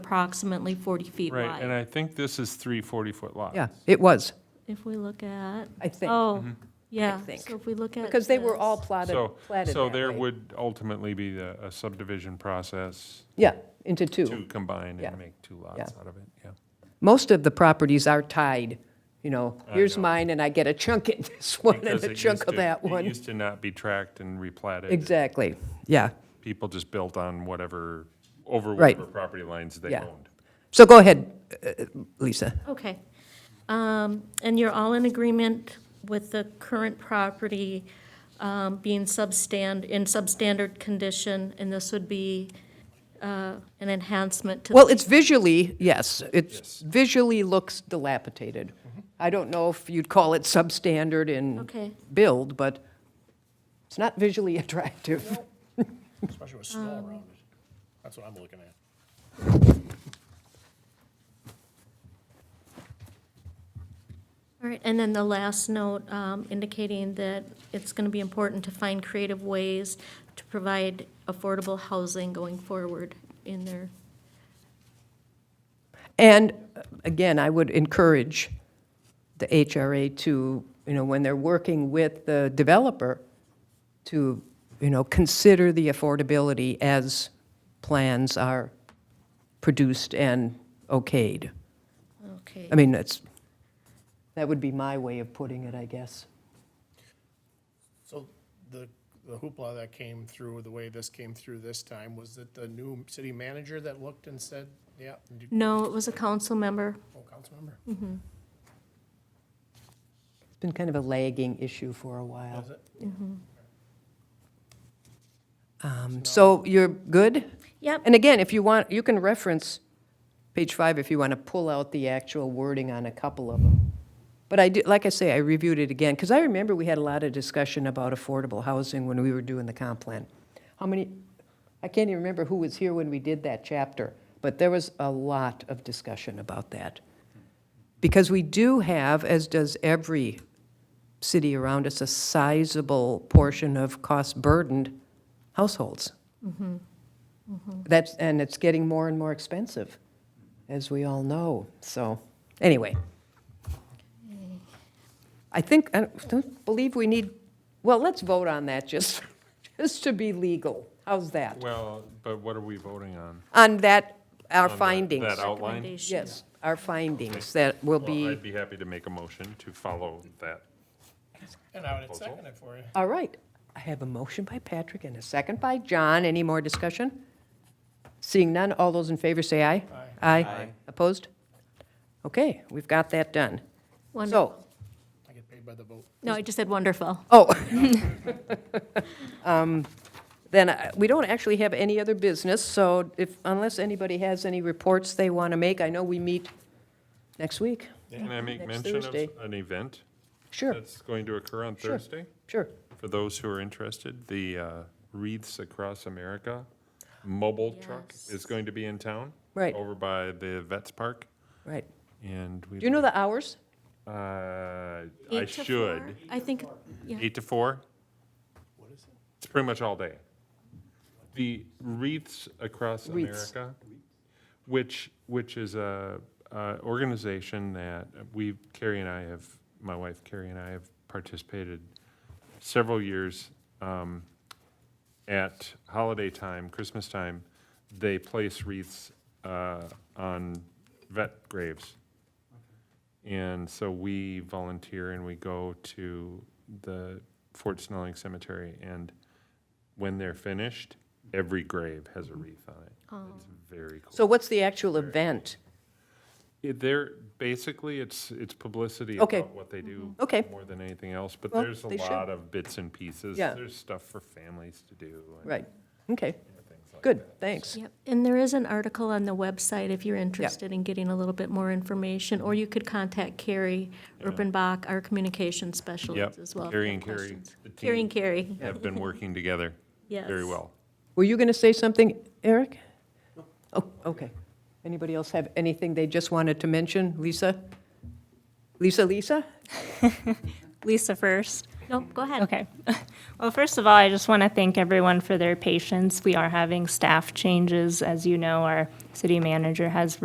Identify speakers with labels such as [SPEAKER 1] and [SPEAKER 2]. [SPEAKER 1] approximately 40 feet
[SPEAKER 2] Right, and
[SPEAKER 1] wide.
[SPEAKER 2] I think this is three 40-foot lots.
[SPEAKER 3] Yeah, it was,
[SPEAKER 1] If we look at,
[SPEAKER 3] I think,
[SPEAKER 1] oh,
[SPEAKER 2] Mm-hmm.
[SPEAKER 1] yeah,
[SPEAKER 3] think.
[SPEAKER 1] so if we look at.
[SPEAKER 3] because they were all
[SPEAKER 1] this,
[SPEAKER 3] platted,
[SPEAKER 2] So,
[SPEAKER 3] platted
[SPEAKER 2] so
[SPEAKER 3] that
[SPEAKER 2] there
[SPEAKER 3] way.
[SPEAKER 2] would ultimately be the- a subdivision process
[SPEAKER 3] Yeah, into two.
[SPEAKER 2] to combine
[SPEAKER 3] Yeah.
[SPEAKER 2] and make two lots out of it, yeah.
[SPEAKER 3] Most of the properties are tied, you know,
[SPEAKER 2] I
[SPEAKER 3] here's
[SPEAKER 2] know.
[SPEAKER 3] mine, and I get a chunk of this one and
[SPEAKER 2] Because
[SPEAKER 3] a
[SPEAKER 2] it
[SPEAKER 3] chunk
[SPEAKER 2] used
[SPEAKER 3] of
[SPEAKER 2] to-
[SPEAKER 3] that
[SPEAKER 2] It
[SPEAKER 3] one.
[SPEAKER 2] used to not be tracked and replatted.
[SPEAKER 3] Exactly, yeah.
[SPEAKER 2] People just built on whatever, over
[SPEAKER 3] Right.
[SPEAKER 2] whatever property lines they
[SPEAKER 3] Yeah.
[SPEAKER 2] owned.
[SPEAKER 3] So go ahead, uh, Lisa.
[SPEAKER 1] Okay. Um, And you're all in agreement with the current property um, being substand, in substandard condition, and this would be uh, an enhancement to.
[SPEAKER 3] Well, it's visually, yes,
[SPEAKER 2] Yes. Mm-hmm.
[SPEAKER 3] it's visually looks dilapidated. I don't know if you'd call it substandard in
[SPEAKER 1] Okay.
[SPEAKER 3] build, but it's not visually attractive.
[SPEAKER 4] Especially with snow around it. That's what I'm looking at.
[SPEAKER 1] All right, and then the last note um, indicating that it's going to be important to find creative ways to provide affordable housing going forward in their,
[SPEAKER 3] And uh, again, I would encourage the HRA to, you know, when they're working with the developer, to, you know, consider the affordability as plans are produced and okayed.
[SPEAKER 1] okay.
[SPEAKER 3] I mean, that's, that would be my way of putting it, I guess.
[SPEAKER 4] So the, the hoopla that came through, the way this came through this time, was that the new city manager that looked and said, yeah, and you-
[SPEAKER 1] No, it was a council member.
[SPEAKER 4] oh, council member?
[SPEAKER 3] It's been kind of a lagging issue for a while.
[SPEAKER 4] Was it?
[SPEAKER 3] Um, So you're good?
[SPEAKER 1] Yep,
[SPEAKER 3] And again, if you want, you can reference page five if you want to pull out the actual wording on a couple of them. But I did, like I say, I reviewed it again, because I remember we had a lot of discussion about affordable housing when we were doing the comp plan. How many, I can't even remember who was here when we did that chapter, but there was a lot of discussion about that. Because we do have, as does every city around us, a sizable portion of cost-burdened households. That's, and it's getting more and more expensive, as we all know, so, anyway. I think, I don't believe we need, well, let's vote on that, just, just to be legal. How's that?
[SPEAKER 2] Well, but what are we voting on?
[SPEAKER 3] On that, our
[SPEAKER 2] On that-
[SPEAKER 3] findings.
[SPEAKER 2] That outline?
[SPEAKER 1] Recommendation.
[SPEAKER 3] Yes, our findings that will
[SPEAKER 2] Well,
[SPEAKER 3] be,
[SPEAKER 2] I'd be happy to make a motion to follow that.
[SPEAKER 4] And I would second it for you.
[SPEAKER 3] all right. I have a motion by Patrick and a second by John. Any more discussion? Seeing none, all those in favor say aye. Aye. Aye. Opposed? Okay, we've got that done. So,
[SPEAKER 1] wonderful.
[SPEAKER 4] I get paid by the vote.
[SPEAKER 1] No, I just said wonderful.
[SPEAKER 3] Oh. Um, Then, uh, we don't actually have any other business, so if, unless anybody has any reports they want to make, I know we meet next week.
[SPEAKER 2] Can I make
[SPEAKER 3] Next
[SPEAKER 2] mention of
[SPEAKER 3] Thursday.
[SPEAKER 2] an event
[SPEAKER 3] Sure,
[SPEAKER 2] that's going to occur on
[SPEAKER 3] Sure.
[SPEAKER 2] Thursday?
[SPEAKER 3] sure.
[SPEAKER 2] For those who are interested, the uh, Wreaths Across America mobile truck is
[SPEAKER 1] Yes.
[SPEAKER 2] going to be in town.
[SPEAKER 3] Right.
[SPEAKER 2] Over by the Vets Park,
[SPEAKER 3] Right.
[SPEAKER 2] and we.
[SPEAKER 3] Do you know the hours?
[SPEAKER 2] Uh, I
[SPEAKER 1] Eight to
[SPEAKER 2] should.
[SPEAKER 1] four? I think, yeah.
[SPEAKER 2] Eight to four?
[SPEAKER 4] What is it?
[SPEAKER 2] It's pretty much all day. The Wreaths Across
[SPEAKER 3] Wreaths.
[SPEAKER 2] America, which, which is a, a organization that we, Carrie and I have, my wife Carrie and I have participated several years um, at holiday time, Christmas time. They place wreaths uh, on vet graves. And so we volunteer and we go to the Fort Snelling Cemetery, and when they're finished, every grave has a wreath on it. It's very cool.
[SPEAKER 3] So what's the actual event?
[SPEAKER 2] It- They're, basically, it's, it's publicity
[SPEAKER 3] Okay.
[SPEAKER 2] about what they do.
[SPEAKER 3] Okay.
[SPEAKER 2] More than anything else, but
[SPEAKER 3] Well,
[SPEAKER 2] there's a
[SPEAKER 3] they should.
[SPEAKER 2] lot of bits and pieces.
[SPEAKER 3] Yeah.
[SPEAKER 2] There's stuff for families to do. and
[SPEAKER 3] Right, okay,
[SPEAKER 2] things like
[SPEAKER 3] good,
[SPEAKER 2] that.
[SPEAKER 3] thanks.
[SPEAKER 1] Yep, and there is an article on the website if you're interested in getting a little bit more information, or you could contact Carrie Urbanbach, our communications specialist as well. if
[SPEAKER 2] Yep, Carrie
[SPEAKER 1] you
[SPEAKER 2] and
[SPEAKER 1] have
[SPEAKER 2] Carrie.
[SPEAKER 1] questions.
[SPEAKER 2] the
[SPEAKER 1] Carrie and
[SPEAKER 2] team
[SPEAKER 1] Carrie,
[SPEAKER 2] Have been working together
[SPEAKER 1] yes.
[SPEAKER 2] very well.
[SPEAKER 3] Were you going to say something, Eric? Oh, okay. Anybody else have anything they just wanted to mention? Lisa? Lisa, Lisa?
[SPEAKER 5] Lisa first.
[SPEAKER 1] Nope, go ahead.
[SPEAKER 5] Okay. Well, first of all, I just want to thank everyone for their patience. We are having staff changes. As you know, our city manager has